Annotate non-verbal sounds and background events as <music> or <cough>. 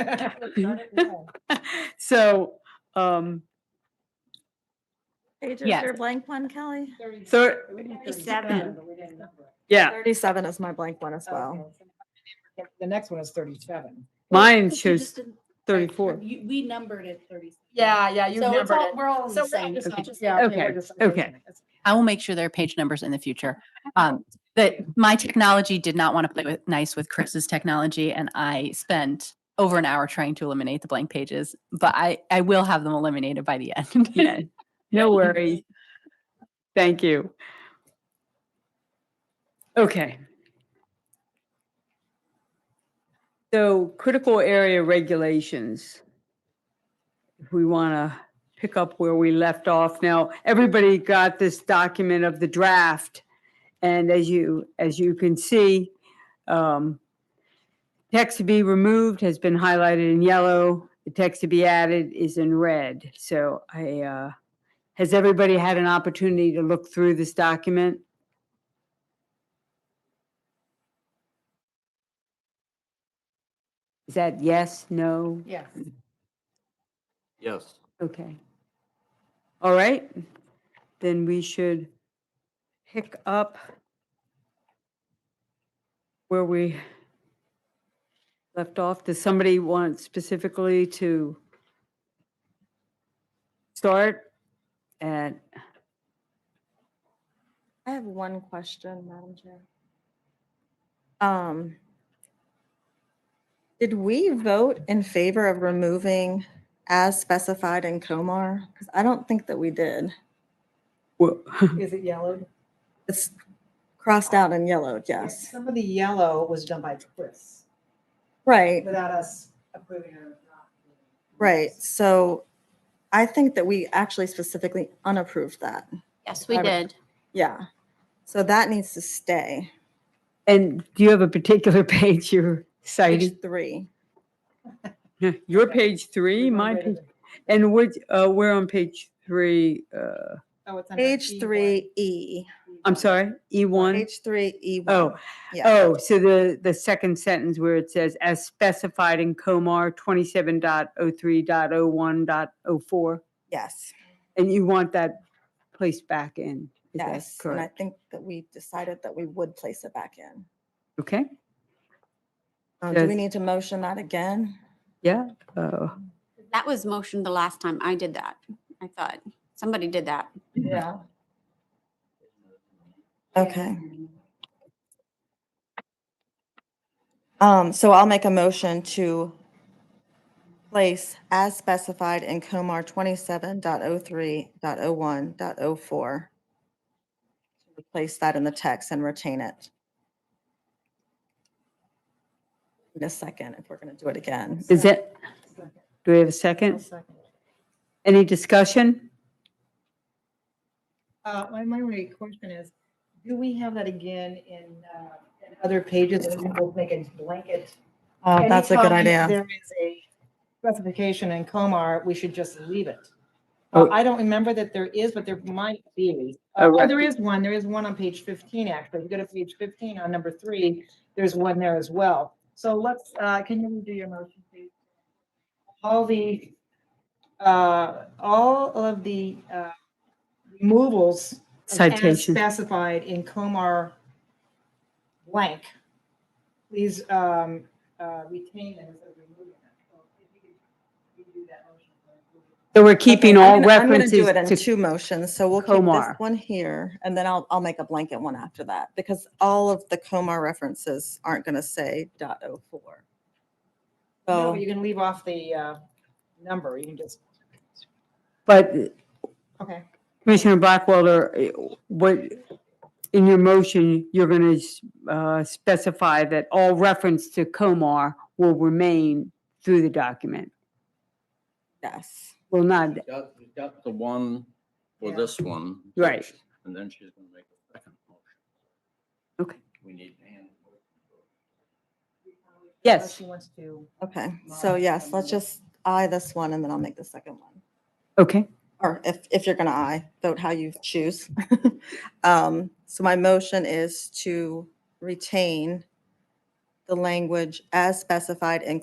Hmm? So, um, Page is Yes. your blank one, Kelly? so, uh, Thirty-seven. yeah, Thirty-seven is my blank one as well. The next one is thirty-seven. But mine you just shows didn't- thirty-four. You- We numbered it thirty. Yeah, yeah, you So it's numbered all, it. we're all in So the we're all same. just- Okay. yeah, we're Okay, just- okay. I will make sure there are page numbers in the future. Um, that my technology did not want to play with nice with Chris's technology and I spent over an hour trying to eliminate the blank pages, but I, I will have them eliminated by the end. Yeah, no worries. Thank you. Okay. So critical area regulations. If we want to pick up where we left off now, everybody got this document of the draft. And as you, as you can see, um, text to be removed has been highlighted in yellow. The text to be added is in red. So I, uh, has everybody had an opportunity to look through this document? Is that yes, no? Yes. Yes. Okay. All right, then we should pick up where we left off. Does somebody want specifically to start at, I have one question, Madam Chair. Um, did we vote in favor of removing as specified in Comar? Because I don't think that we did. wha- <laughs> Is it yellowed? It's crossed out and yellowed, yes. Some of the yellow was done by Chris Right, without us approving or not. right. So I think that we actually specifically unapproved that. Yes, <laughs> we did. Yeah. So that needs to stay. and do you have a particular <laughs> page you're citing? Page three. Your page three, my page, and which, uh, we're on page three, uh, oh, Page three E. I'm sorry, E one? Page three E. Oh, Yeah. Oh, so the, the second sentence where it says, as specified in Comar 27.03.01.04, Yes, and you want that placed back in. Is that yes. And I Correct. think that we decided that we would place it back in. Okay, Uh, Do we Yes. need to motion that again? yeah. uh, That was motioned the last time I did that, I thought. Somebody did that. Yeah. Okay. Um, so I'll make a motion to place as specified in Comar 27.03.01.04. Replace that in the text and retain it. In a second, if we're gonna do it again. Is it, do we have a second? Any discussion? Uh, my, my only question is, do we have that again in, uh, in other pages that we both make a blanket? Oh, that's a good Anytime idea. There is a specification in Comar, we should just leave it. Oh. Uh, I don't remember that there is, but there might be. Oh, Uh, Oh, right. there is one, there is one on page fifteen, actually. If you go to page fifteen on number three, there's one there as well. So let's, uh, can you redo your motion, please? All the, uh, all of the, uh, removals as Citation. Specified in Comar blank. Please um, uh, retain them as a removal. So if you could redo that motion. So we're keeping Okay, I'm all gonna- I'm gonna references do it in to, Two motions, so we'll keep Comar. this one here, and then I'll, I'll make a blanket one after that, because all of the Comar references aren't gonna say dot oh four. Oh, No, So, but you can leave off the uh, number. You can just, but okay. Commissioner Blackwelder, eh, what, in your motion, you're going to specify that all reference to Comar will remain through the document, yes, will not, We've got, we've got the one for Yeah. this one. Right. which- And then she's gonna make a second motion. Okay. We need Ann. Unless Yes. She wants to. okay, so yes, let's just eye this one, and then I'll make the second one. okay? Or if, if you're gonna eye, vote how you choose. <laughs> Um, So my motion is to retain the language as specified in